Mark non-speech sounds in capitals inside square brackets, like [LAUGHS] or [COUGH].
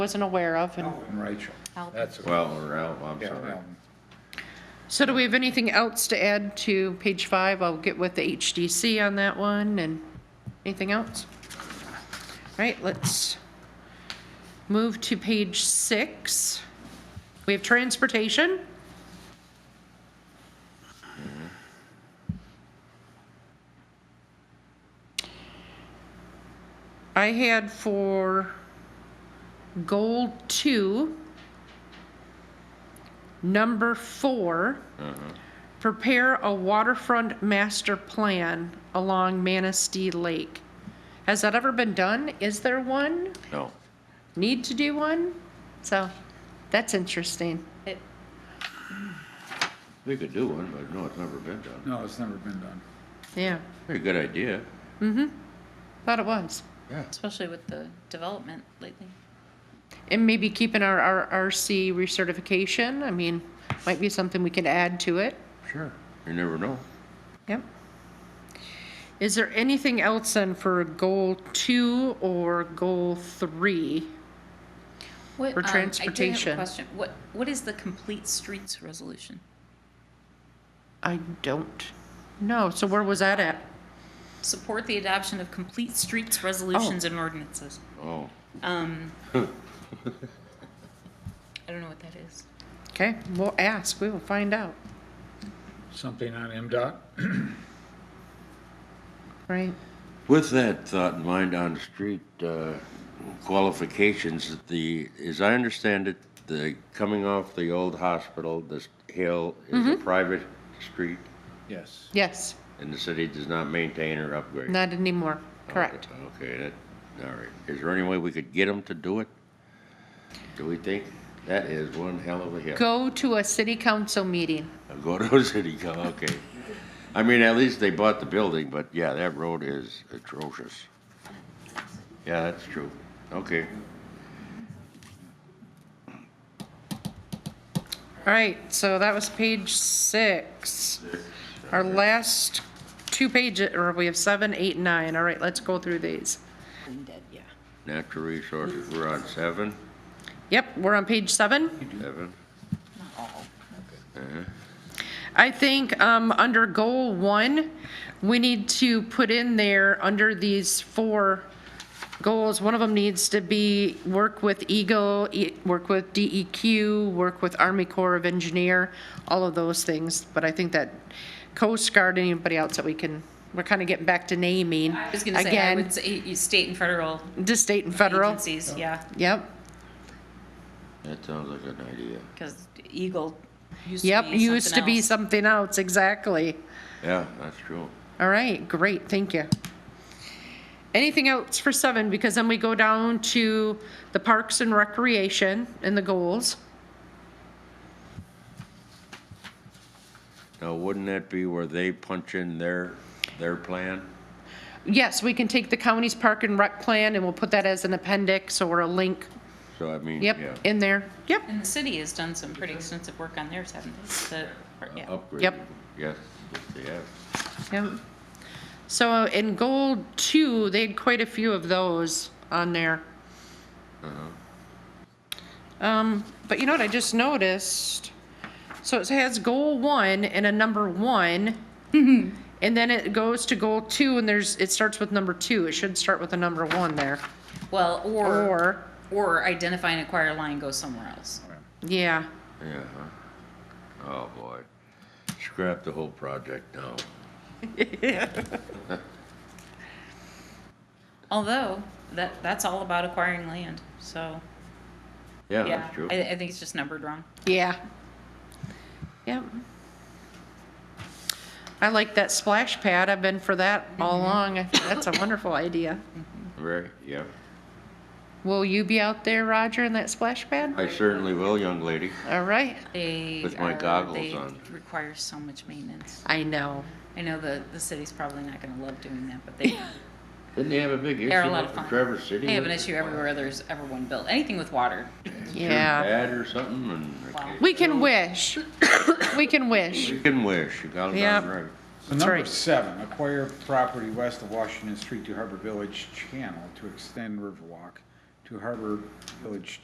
wasn't aware of. and- Elton and Rachel. That's a- Well, or Al, I'm yeah, sorry. Elton. So do we have anything else to add to page five? I'll get with the HDC on that one and anything else? All right, let's move to page six. We have transportation. I had for goal two, number four, prepare a waterfront master plan along Manistee Lake. Has that ever been done? Is there one? No. Need to do one? So that's interesting. We could do one, but no, it's never been done. No, it's never been done. Yeah, Very good idea. thought it was. especially with the development lately. And maybe keeping our, our RC recertification, I mean, might be something we could add to it. Sure. You never know. Yep. Is there anything else then for goal two or goal three? What, For um, I do have transportation. a question. What, what is the complete streets resolution? I don't know. So where was that at? Support the adoption of complete streets resolutions and ordinances. Oh, Um, I don't know what that is. Okay, we'll ask, we will find out, Something on MDOT? right? With that thought in mind on street uh, qualifications, the, as I understand it, the, coming off the old hospital, this hill is a private street Yes. Yes, and the city does not maintain or upgrade. not anymore, correct. Okay, that, all right. Is there any way we could get them to do it? Do we think? That is one hell of a hill. Go to a city council meeting. Go [LAUGHS] to City, Co- okay. I mean, at least they bought the building, but yeah, that road is atrocious. Yeah, that's true. Okay. All right, so that was page six. Our last two pages, or we have seven, eight, nine. All right, let's go through these. Natural resources, we're on seven, Yep, we're on page seven. seven. I think um, under goal one, we need to put in there, under these four goals, one of them needs to be work with Eagle, E- work with DEQ, work with Army Corps of Engineer, all of those things. But I think that Coast Guard, anybody else that we can, we're kind of getting back to naming. I was gonna say, I would say you state and federal Again, to state and federal. agencies, yeah, Yep, That sounds like an idea. because Eagle used to be yep, used to something be else. something else, exactly. Yeah, that's true. All right, great, thank you. Anything else for seven, because then we go down to the parks and recreation and the goals. Now, wouldn't that be where they punch in their, their plan? Yes, we can take the county's park and rec plan and we'll put that as an appendix or a link, So I mean, yeah. yep, in there, yep. And the city has done some pretty extensive work on theirs, haven't they? The- yeah. Uh, Upgrade. Yep. Yes, yes. Yep. So in goal two, they had quite a few of those on there. Um, but you know what I just noticed? So it has goal one and a number one. And then it goes to goal two and there's, it starts with number two. It should start with a number one there. Well, or, Or, or identify and acquire line, go somewhere else. yeah. Yeah. huh? Oh, boy. Scrap the whole project now. Although, that, that's all about acquiring land, so, Yeah, yeah, that's true. I, I think it's just numbered wrong. Yeah. Yep. I like that splash pad. I've been for that all along. That's a wonderful idea. Very, yeah. Will you be out there, Roger, in that splash pad? I certainly will, young lady. All right. They With my are- goggles they on. Require so much maintenance. I know. I know the, the city's probably not gonna love doing that, [LAUGHS] but they, Didn't they have a big issue they're a lot of up in fun. Traverse City? They have an with issue the everywhere there's ever one built, anything with water. Yeah. Bad or something and. Wow. We can wish. We can wish. You can wish, you got it Yep. down right. So number right. seven, acquire property west of Washington Street to Harbor Village Channel to extend Riverwalk to Harbor Village